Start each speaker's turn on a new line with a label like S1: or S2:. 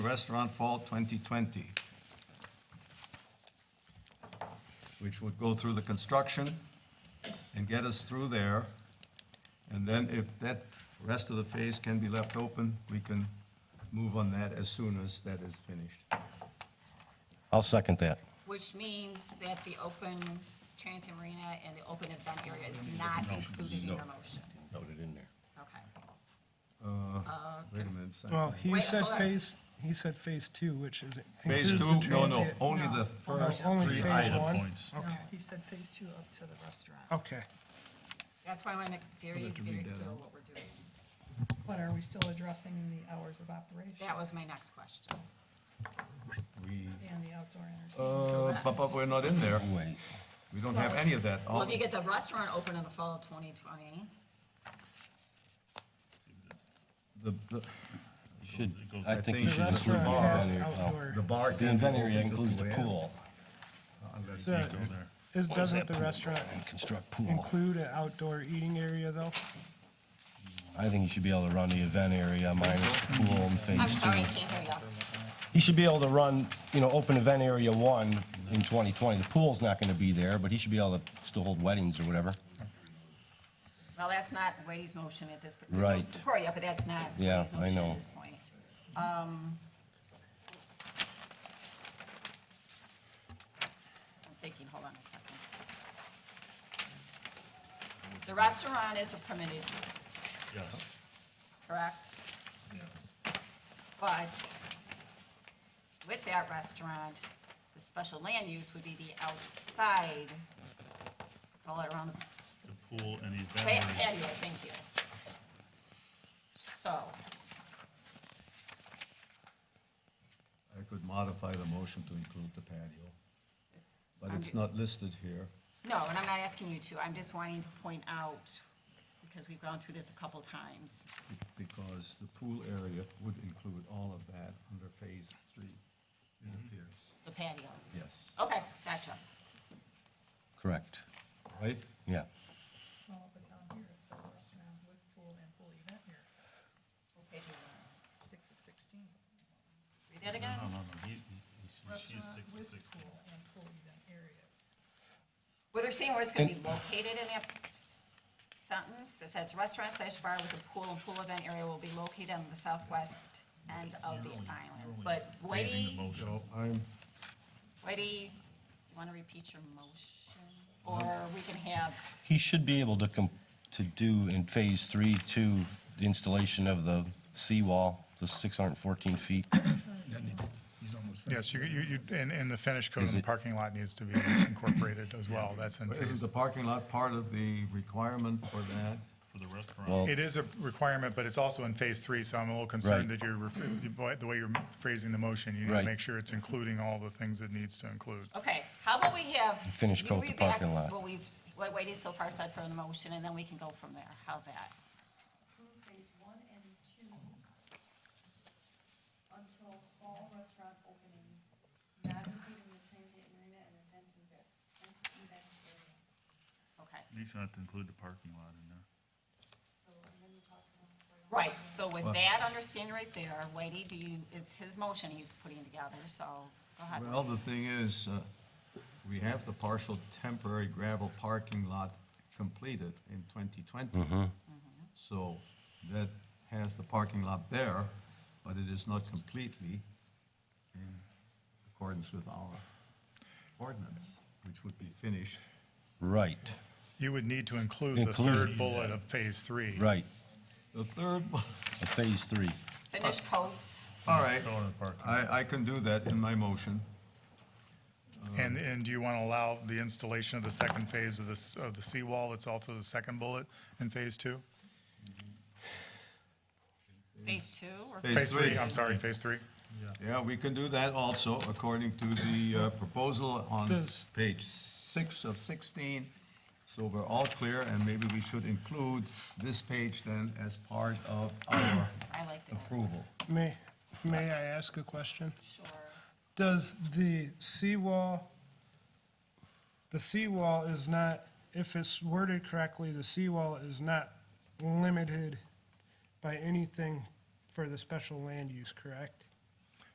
S1: Restaurant Fall 2020, which would go through the construction and get us through there. And then if that rest of the phase can be left open, we can move on that as soon as that is finished.
S2: I'll second that.
S3: Which means that the open transient arena and the open event area is not included in your motion.
S2: Noted in there.
S3: Okay.
S1: Wait a minute. second.
S4: Well, he
S3: Wait,
S4: said
S3: hold on.
S4: phase, he said phase two, which is.
S1: Phase two,
S4: includes the
S1: no, no,
S4: transient-
S1: only the
S4: No,
S1: first
S4: only
S1: three
S4: phase one?
S1: items.
S5: No,
S4: Okay, Oh.
S5: he said phase two up to the restaurant.
S4: okay.
S3: That's why I want to make very, very clear what we're doing.
S5: But are we still addressing the hours of operation
S3: That was my next question.
S1: We,
S5: and the outdoor entertainment?
S1: uh, but, but we're not in there.
S2: Wait.
S1: We don't have any of that.
S3: Well, if you get the restaurant open in the fall of 2020,
S1: The, the,
S2: Should, I think
S1: I
S2: you
S1: think-
S2: should include the
S1: Restaurant,
S2: event area.
S4: outdoor.
S2: oh.
S1: the bar.
S2: The event area includes the
S1: Yeah.
S2: pool.
S1: Unless
S4: So, is- Doesn't the restaurant
S2: And construct pool.
S4: include an outdoor eating area, though?
S2: I think you should be able to run the event area minus the pool and
S3: I'm
S2: phase
S3: sorry, I
S2: two.
S3: can't hear you.
S2: He should be able to run, you know, open event area one in 2020. The pool's not going to be there, but he should be able to still hold weddings or whatever.
S3: Well, that's not Ray's motion at this, I
S2: Right.
S3: support you, but that's not
S2: Yeah,
S3: Ray's
S2: I
S3: motion
S2: know.
S3: at this point. Um, I'm thinking, hold on a second. The restaurant is a permitted use,
S6: Yes.
S3: correct? But with that restaurant, the special land use would be the outside, call it around the
S6: The pool and the
S3: Pa-
S6: event area.
S3: Patio, thank you. So,
S1: I could modify the motion to include the patio,
S3: it's-
S1: but
S3: I'm
S1: it's
S3: just-
S1: not listed here.
S3: No, and I'm not asking you to, I'm just wanting to point out, because we've gone through this a couple times.
S1: because the pool area would include all of that under phase three, it appears.
S3: The patio.
S1: Yes.
S3: Okay, gotcha.
S2: Correct.
S1: Right?
S2: Yeah.
S5: Well, but down here it says restaurant with pool and pool event here,
S3: Okay, do you wanna
S5: six of sixteen.
S3: Read that
S6: No,
S3: again?
S6: no, no, he, he, she is
S5: Restaurant
S6: six to
S5: with
S6: six.
S5: pool and pool event areas.
S3: Well, they're saying where it's gonna be located in that s- sentence. It says restaurant slash bar with a pool and pool event area will be located on the southwest end of the island. But
S6: Raising the
S3: Whitey,
S6: motion.
S1: I'm,
S3: Whitey, you wanna repeat your motion? Or we can have
S2: He should be able to com to do in phase three, two, the installation of the seawall, the 614 feet.
S7: Yes, you, you, you- and, and the finish code in the
S2: it-
S7: parking lot needs to be incorporated as well. That's in
S1: isn't
S7: phase.
S1: the parking lot part of the requirement for that?
S6: For the
S2: Well-
S6: restaurant,
S7: It is a requirement, but it's also in phase three, so I'm a little concerned
S2: Right.
S7: that you're, ref- the way you're phrasing the motion, you need to
S2: Right.
S7: make sure it's including all the things it needs to include.
S3: Okay, how about we have?
S2: Finish
S3: you
S2: coat the
S3: read back
S2: parking lot.
S3: What we've, what Wadey so far said for the motion, and then we can go from there. How's that?
S8: approve phase one and two until fall restaurant opening, not including the transient marina and the tent and bed, tent event area.
S3: Okay,
S6: you should have to include the parking lot in there.
S8: So, and then we talked about.
S3: right, so with that understanding right there, Wadey, do you, it's his motion he's putting together, so go ahead.
S1: Well, the thing is, uh, we have the partial temporary gravel parking lot completed in 2020. So that has the parking lot there, but it is not completely in accordance with our ordinance, which would be finished
S2: Right,
S7: You would need to include the
S2: Include.
S7: third bullet of phase three.
S2: right,
S1: The third, one-
S2: a phase three.
S3: Finish coats,
S1: all right,
S6: Go in the parking lot.
S1: I, I can do that in my motion.
S7: And, and do you want to allow the installation of the second phase of this, of the seawall that's also the second bullet in phase two?
S3: phase two, or
S1: Phase
S7: Phase three,
S1: three.
S7: I'm sorry, phase three.
S1: Yeah, we can do that also, according to the uh, proposal on
S4: Does-
S1: page six of 16. So we're all clear, and maybe we should include this page then as part of our
S3: I like that,
S1: approval.
S4: May, may I ask a question?
S3: sure.
S4: Does the seawall, the seawall is not, if it's worded correctly, the seawall is not limited by anything for the special land use, correct?